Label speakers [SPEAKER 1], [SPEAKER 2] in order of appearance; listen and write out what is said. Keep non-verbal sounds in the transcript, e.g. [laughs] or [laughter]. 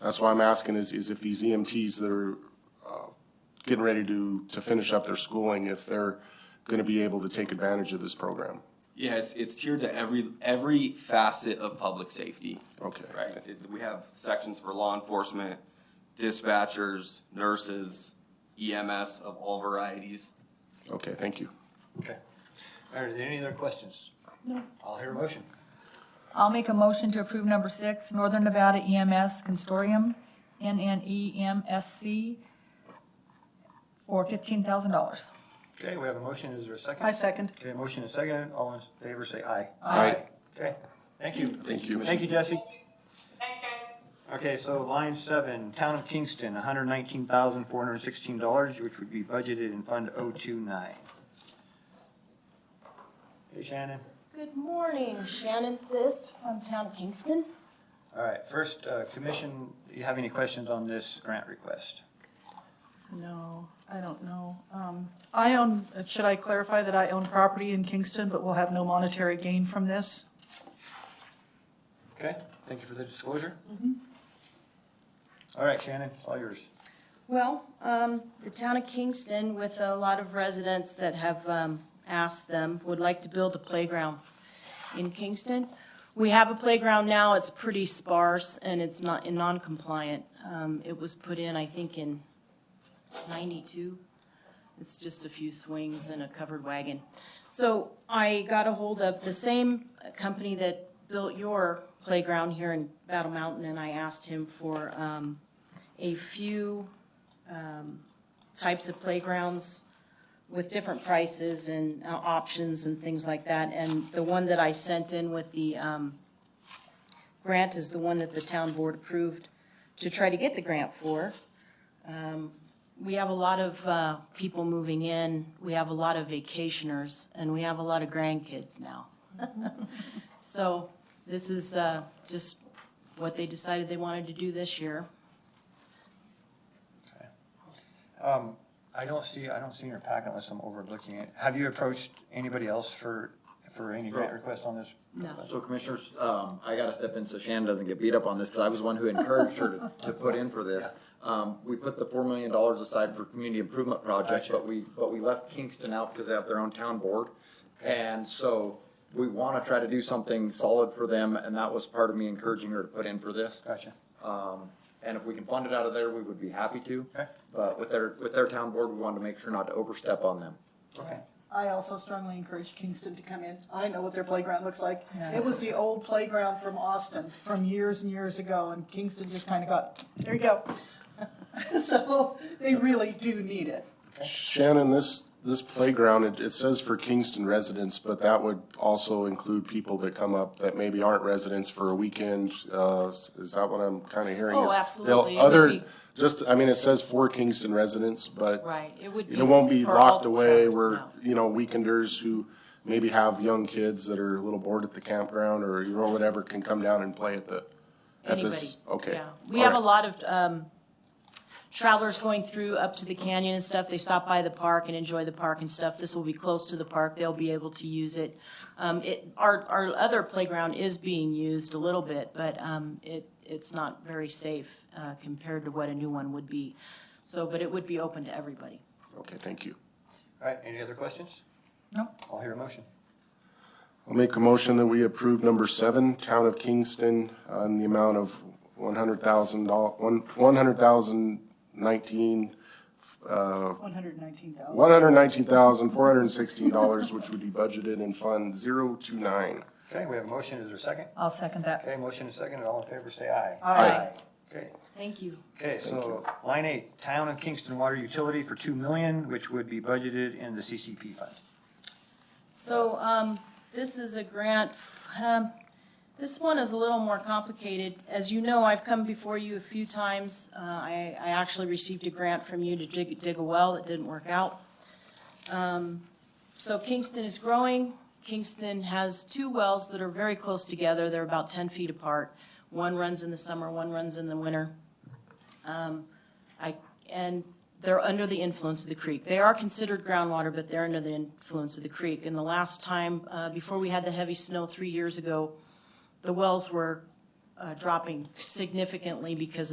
[SPEAKER 1] That's why I'm asking is, is if these EMTs that are uh, getting ready to, to finish up their schooling, if they're going to be able to take advantage of this program.
[SPEAKER 2] Yeah, it's, it's tiered to every, every facet of public safety,
[SPEAKER 1] Okay.
[SPEAKER 2] right? It- We have sections for law enforcement, dispatchers, nurses, EMS of all varieties.
[SPEAKER 1] Okay, thank you.
[SPEAKER 3] Okay. All right, are there any other questions? No. I'll hear a motion.
[SPEAKER 4] I'll make a motion to approve number six, Northern Nevada E EMS Consortium, E NNEMSC, for fifteen thousand dollars.
[SPEAKER 3] Okay, we have a motion. Is there a second?
[SPEAKER 5] I second.
[SPEAKER 3] Okay, motion is second. All in favor say aye.
[SPEAKER 1] Aye.
[SPEAKER 3] Okay, thank you.
[SPEAKER 1] Thank you.
[SPEAKER 3] Thank you, Jesse.
[SPEAKER 6] Thanks, guys.
[SPEAKER 3] Okay, so line seven, Town of Kingston, hundred nineteen thousand, four hundred sixteen dollars, which would be budgeted in Fund oh two nine. Hey Shannon.
[SPEAKER 7] Good morning, Shannon Bliss from Town of Kingston.
[SPEAKER 3] All right, first, uh, commission, you have any questions on this grant request?
[SPEAKER 5] No, I don't know. Um, I own, should I clarify that I own property in Kingston, but will have no monetary gain from this?
[SPEAKER 3] Okay, thank you for the disclosure. Mm-hmm. All right, Shannon, it's all yours.
[SPEAKER 7] Well, um, the town of Kingston, with a lot of residents that have, um, asked them, would like to build a playground in Kingston. We have a playground now, it's pretty sparse and it's not, and non-compliant. Um, it was put in, I think, in ninety-two. It's just a few swings and a covered wagon. So I got a hold of the same company that built your playground here in Battle Mountain and I asked him for, um, a few um, types of playgrounds with different prices and uh, options and things like that. And the one that I sent in with the um, grant is the one that the town board approved to try to get the grant for. Um, We have a lot of uh, people moving in, we have a lot of vacationers, and we have a lot of grandkids now. [laughs] So this is uh, just what they decided they wanted to do this year.
[SPEAKER 3] Um, I don't see, I don't see in your packet unless I'm overlooking it. Have you approached anybody else for, for any grant request on this?
[SPEAKER 7] No.
[SPEAKER 8] So commissioners, um, I gotta step in so Shannon doesn't get beat up on this, cause I was one who encouraged her to, to put in for this. Um, we put the four million dollars aside for community improvement projects, but we, but we left Kingston out because they have their own town board. And so we wanna try to do something solid for them, and that was part of me encouraging her to put in for this.
[SPEAKER 3] Gotcha.
[SPEAKER 8] Um, and if we can fund it out of there, we would be happy to.
[SPEAKER 3] Okay.
[SPEAKER 8] But with their, with their town board, we wanted to make sure not to overstep on them.
[SPEAKER 3] Okay.
[SPEAKER 9] I also strongly encourage Kingston to come in. I know what their playground looks like. It was the old playground from Austin from years and years ago, and Kingston just kind of got, there you go. [laughs] So they really do need it.
[SPEAKER 1] Shannon, this, this playground, it, it says for Kingston residents, but that would also include people that come up that maybe aren't residents for a weekend. Uh, s- is that what I'm kind of hearing?
[SPEAKER 7] Oh,
[SPEAKER 1] Is they'll-
[SPEAKER 7] absolutely. It would
[SPEAKER 1] Other,
[SPEAKER 7] be-
[SPEAKER 1] just, I mean, it says for Kingston residents, but
[SPEAKER 7] Right, it would be.
[SPEAKER 1] it won't be
[SPEAKER 7] for all
[SPEAKER 1] locked
[SPEAKER 7] the
[SPEAKER 1] away
[SPEAKER 7] traffic,
[SPEAKER 1] where,
[SPEAKER 7] no.
[SPEAKER 1] you know, weekenders who maybe have young kids that are a little bored at the campground or, you know, whatever, can come down and play at the, at this,
[SPEAKER 7] Anybody,
[SPEAKER 1] okay.
[SPEAKER 7] yeah. We
[SPEAKER 1] All
[SPEAKER 7] have a
[SPEAKER 1] right.
[SPEAKER 7] lot of um, travelers going through up to the canyon and stuff. They stop by the park and enjoy the park and stuff. This will be close to the park. They'll be able to use it. Um, It, our, our other playground is being used a little bit, but um, it, it's not very safe uh, compared to what a new one would be. So, but it would be open to everybody.
[SPEAKER 1] Okay, thank you.
[SPEAKER 3] All right, any other questions?
[SPEAKER 4] No.
[SPEAKER 3] I'll hear a motion.
[SPEAKER 1] I'll make a motion that we approve number seven, Town of Kingston, on the amount of one hundred thousand doll, one, one hundred thousand nineteen, uh,
[SPEAKER 9] One hundred nineteen thousand.
[SPEAKER 1] one hundred nineteen thousand, four hundred and sixteen dollars, which would be budgeted in Fund zero two nine.
[SPEAKER 3] Okay, we have a motion. Is there a second?
[SPEAKER 4] I'll second that.
[SPEAKER 3] Okay, motion is second. All in favor say aye.
[SPEAKER 4] Aye.
[SPEAKER 3] Okay,
[SPEAKER 7] Thank you.
[SPEAKER 3] okay, so line eight, Town of Kingston Water Utility for two million, which would be budgeted in the CCP fund.
[SPEAKER 7] So, um, this is a grant, um, this one is a little more complicated. As you know, I've come before you a few times. Uh, I, I actually received a grant from you to dig, dig a well. It didn't work out. Um, so Kingston is growing. Kingston has two wells that are very close together. They're about ten feet apart. One runs in the summer, one runs in the winter. Um, I, and they're under the influence of the creek. They are considered groundwater, but they're under the influence of the creek. And the last time, uh, before we had the heavy snow three years ago, the wells were, uh, dropping significantly because of